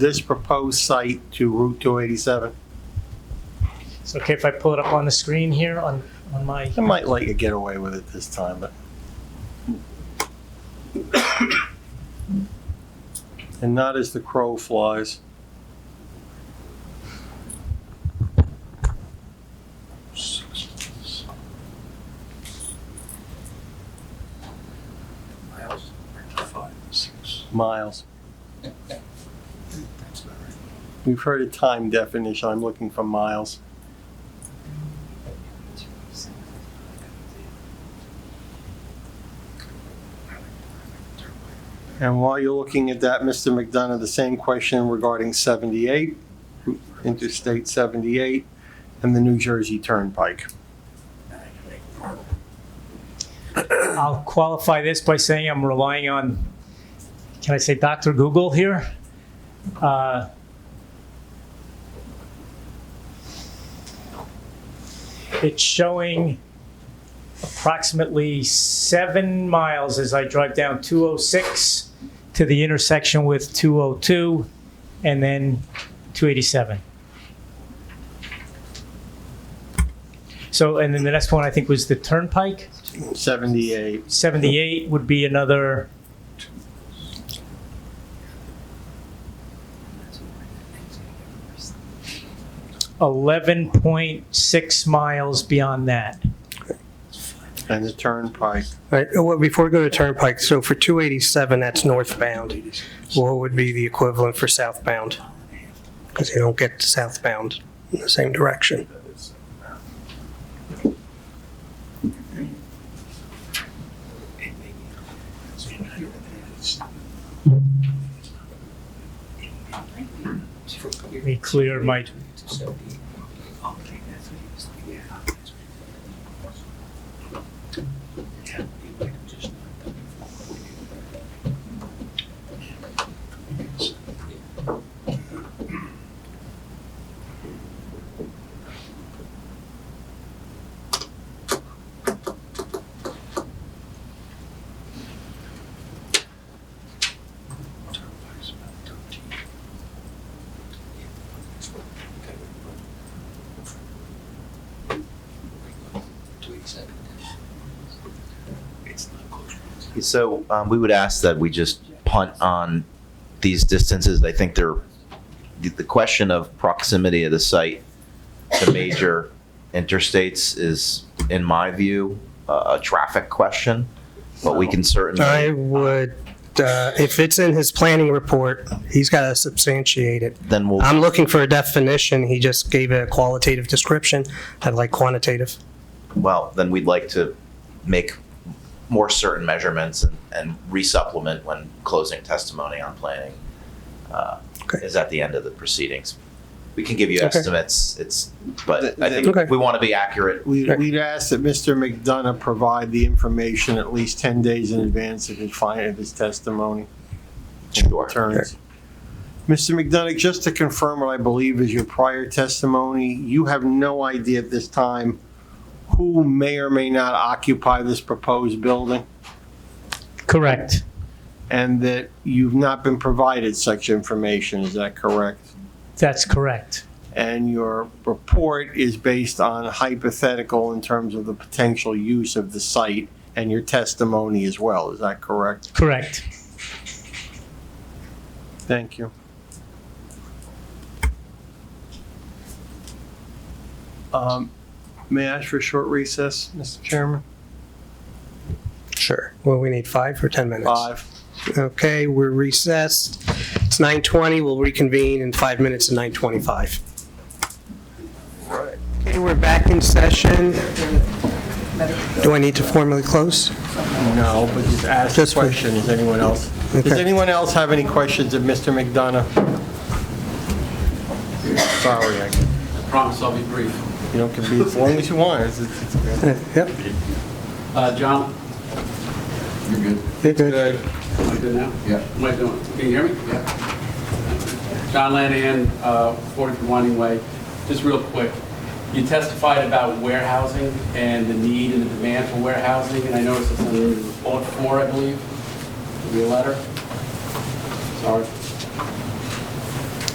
this proposed site to Route 287? It's okay if I pull it up on the screen here on, on my, I might let you get away with it this time, but. And not as the crow flies. Miles, five, six. Miles, That's about right. we've heard a time definition, I'm looking for miles. And while you're looking at that, Mr. McDonough, the same question regarding 78, Interstate 78, and the New Jersey Turnpike. I'll qualify this by saying I'm relying on, can I say Dr. Google here? Uh, It's showing approximately seven miles as I drive down 206 to the intersection with 202 and then 287. So, and then the next one I think was the Turnpike? 78, 78 would be another, That's 11.6 miles beyond that. and the Turnpike. Right, uh, well, before we go to Turnpike, so for 287, that's northbound. What would be the equivalent for southbound? Because they don't get southbound in the same direction. Let me clear my, So um, we would ask that we just punt on these distances. I think they're, the- the question of proximity of the site to major interstates is, in my view, a a traffic question, but we can I certainly, would, uh, if it's in his planning report, he's got to substantiate it. then we'll, I'm looking for a definition, he just gave a qualitative description, I'd like quantitative. well, then we'd like to make more certain measurements and- and resupplement when closing testimony on planning uh, Okay. is at the end of the proceedings. We can give you Okay. estimates, it's, but The- I the- think Okay. we want to be accurate We- Right. We'd ask that Mr. McDonough provide the information at least 10 days in advance of his fi- of his testimony. Sure. Returns. Mr. McDonough, just to confirm what I believe is your prior testimony, you have no idea at this time who may or may not occupy this proposed building, correct, and that you've not been provided such information, is that correct? that's correct, and your report is based on hypothetical in terms of the potential use of the site and your testimony as well, is that correct? correct. Thank you. Um, May I ask for a short recess, Mr. Chairman? Sure. Well, we need five or 10 minutes? Five. Okay, we're recessed. It's 9:20, we'll reconvene in five minutes at 9:25. Okay, we're back in session. Do I need to formally close? No, but just ask a Just wait. question, is anyone else? Does Okay. anyone else have any questions of Mr. McDonough? Sorry, I, Promise I'll be brief. you know, it can be as long as you want, it's, it's. it's- Uh, Yep, Uh, John? You're good. you're good. Am I good now? Yeah. Am I doing, can you hear me? Yeah. John Lanahan, uh, 43 Winding Way. Just real quick, you testified about warehousing and the need and the demand for warehousing, and I noticed it's in report four, I believe, Give me a letter. Sorry.